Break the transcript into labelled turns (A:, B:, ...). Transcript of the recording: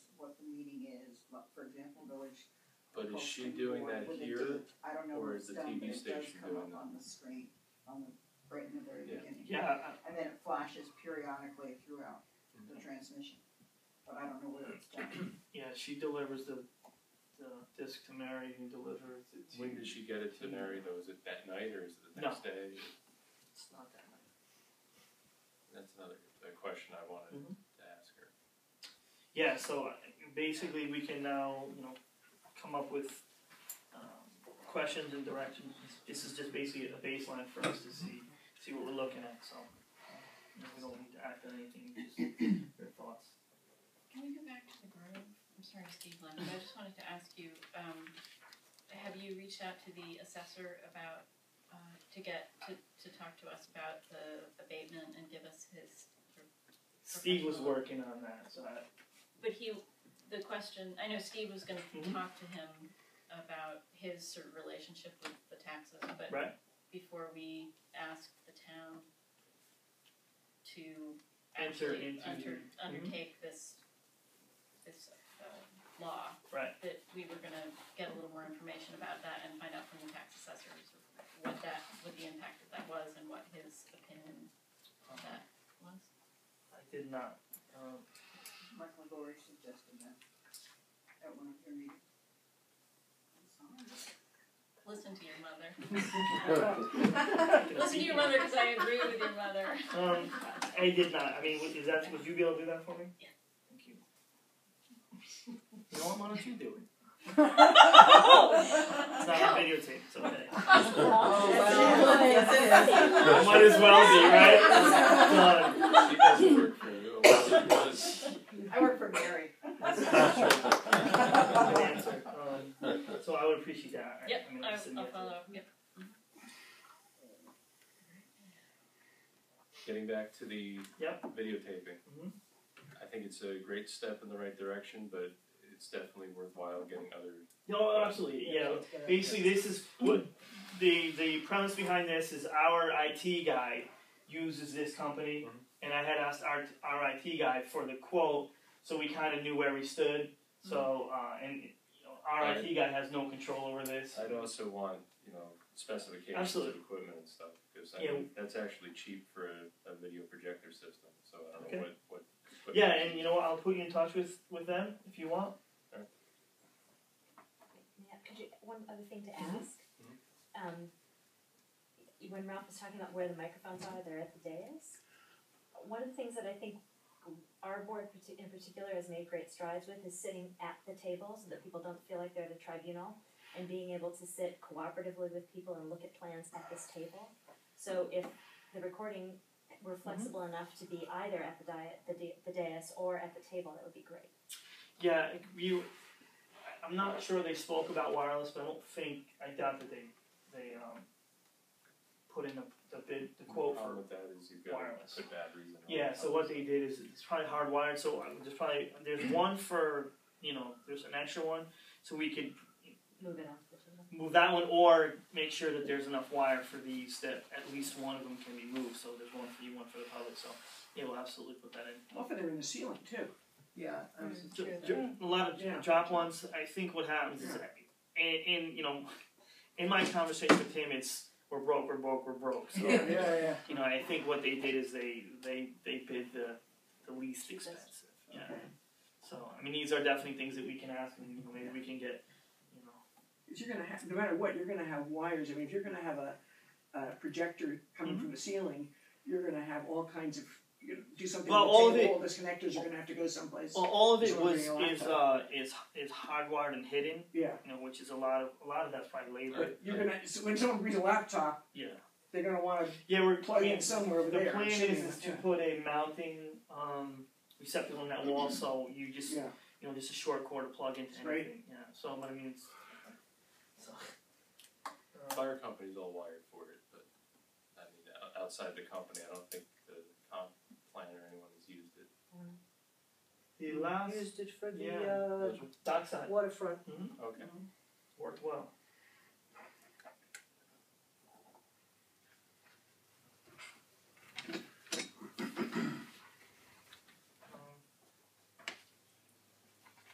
A: the meeting is, like, for example, village.
B: But is she
A: Upholstery
B: doing
A: Board,
B: that
A: what they do.
B: here,
A: I don't know
B: or
A: where
B: is
A: it's
B: the
A: done, but
B: TV
A: it does
B: station
A: come
B: doing
A: up
B: that?
A: on the screen, on the, right in the very
B: Yeah.
A: beginning.
C: Yeah, uh, I-
A: And then it flashes periodically throughout the
B: Mhm.
A: transmission, but I don't know where it's done.
C: yeah, she delivers the, the disc to Mary, who delivers it to.
B: When did she get it to Mary though? Is it that night or is it the
C: No.
B: next day?
C: It's not that much.
B: That's another a question I wanted
C: Mhm.
B: to ask her.
C: Yeah, so uh, basically, we can now, you know, come up with um, questions and directions. This is just basically a baseline for us to see, see what we're looking at, so. you know, We don't need to act on anything, just your thoughts.
D: Can we go back to the grove? I'm sorry, Steve Lynn, but I just wanted to ask you, um, have you reached out to the assessor about, uh, to get, to, to talk to us about the abatement and give us his,
C: Steve was working on that, so I,
D: but he, the question, I know Steve was gonna
C: Mhm.
D: talk to him about his sort of relationship with the taxes, but
C: Right.
D: before we asked the town to
C: Enter
D: actually
C: into-
D: under,
C: Mhm.
D: undertake this, this, uh, law.
C: Right.
D: That we were gonna get a little more information about that and find out from the tax assessors what that, what the impact of that was and what his opinion on that was.
C: I did not. Um,
A: Michael Gorey suggested that at one of your meetings. So-
D: Listen to your mother.
C: can
D: Listen to
C: speak-
D: your mother, cause I agree with your mother.
C: Um, I did not. I mean, would- is that would you be able to do that for me?
D: Yeah.
C: Thank you. You know what? Why don't you do it? It's not on videotape. It's okay.
D: Oh,
C: I might as well be right. Done.
B: She doesn't work for you. unless she
A: I work for Gary.
C: Good
B: does.
C: answer. Um, so I would appreciate that. I-
D: Yep,
C: I mean,
D: I,
C: listen,
D: I'll
C: yeah.
D: follow up, yep.
B: Getting back to the
C: Yep.
B: videotaping.
C: Mhm.
B: I think it's a great step in the right direction, but it's definitely worthwhile getting other.
C: No, Oh, absolutely. Yeah. Basically, this is what the the premise behind this is. Our IT guy uses this company,
B: Mhm.
C: and I had asked our our IT guy for the quote, so we kind of knew where we stood. So uh, and you know, our
B: Right.
C: IT guy has no control over this.
B: I'd also want you know specifications
C: Absolutely.
B: of equipment and stuff because I
C: Yeah.
B: mean, that's actually cheap for a, a video projector system. So I don't
C: Okay.
B: know what what. Equipment
C: Yeah, and you know what? I'll put you in touch with with them if you want.
E: Yeah, could you, one other thing to
C: Mhm.
E: ask? Um, y- when Ralph was talking about where the microphones are, they're at the dais. One of the things that I think our board parti- in particular has made great strides with is sitting at the table so that people don't feel like they're at a tribunal and being able to sit cooperatively with people and look at plans at this table. So if the recording were flexible enough to be either at the diet, the, da- the dais or at the table, that would be great.
C: Yeah, you. I- I'm not sure they spoke about wireless, but I don't think I doubt that they they um, put in the the bid the
B: The
C: quote for
B: problem with that is you've got
C: wireless.
B: to put batteries in. all
C: Yeah,
B: the
C: so what they did is it's probably hardwired. So I- there's probably there's one for you know there's an extra one, so we could
E: Move it off the table.
C: move that one or make sure that there's enough wire for these that at least one of them can be moved. So there's one for you, one for the public. So yeah, we'll absolutely put that in.
F: Often they're in the ceiling too.
A: Yeah. I was-
D: Mm,
C: Ju-
D: true.
C: ju- A lot of
F: Yeah.
C: drop ones. I think what happens is, and, and you know, in my conversation with him, it's we're broke, we're broke, we're broke. So
F: Yeah, yeah.
C: you know, I think what they did is they they they bid the the least expensive. Yeah. So I mean, these are definitely things that we can ask, and you know, maybe we can get, you know,
F: Because you're gonna have, no matter what, you're gonna have wires. I mean, if you're gonna have a, a projector coming
C: Mm-hmm.
F: from the ceiling, you're gonna have all kinds of. You're gonna do something.
C: Well,
F: with
C: all of
F: table,
C: it-
F: all those connectors are gonna have to go someplace.
C: well, all of it
F: Just
C: was
F: wondering a
C: is uh is is hardwired and hidden,
F: yeah,
C: you know, which is a lot of a lot of that's probably labor.
F: but you're gonna. So when someone brings a laptop,
C: Yeah.
F: they're gonna want to
C: Yeah, we're
F: plug
C: yeah,
F: in somewhere over
C: The
F: there.
C: plan
F: sitting
C: is,
F: in
C: is
F: it,
C: to
F: yeah.
C: put a mounting um, receptacle on that wall, so you just
F: Yeah.
C: you know just a short cord to plug into
F: That's great.
C: anything. Yeah. So but I mean, it's, so Uh,
B: The Fire company's all wired for it, but I mean, o- outside the company, I don't think the comp plan or anyone has used it.
C: the last
G: used it for the
C: Yeah.
G: uh,
B: Did you?
C: dockside
G: waterfront.
B: Okay.
C: worked well. Um,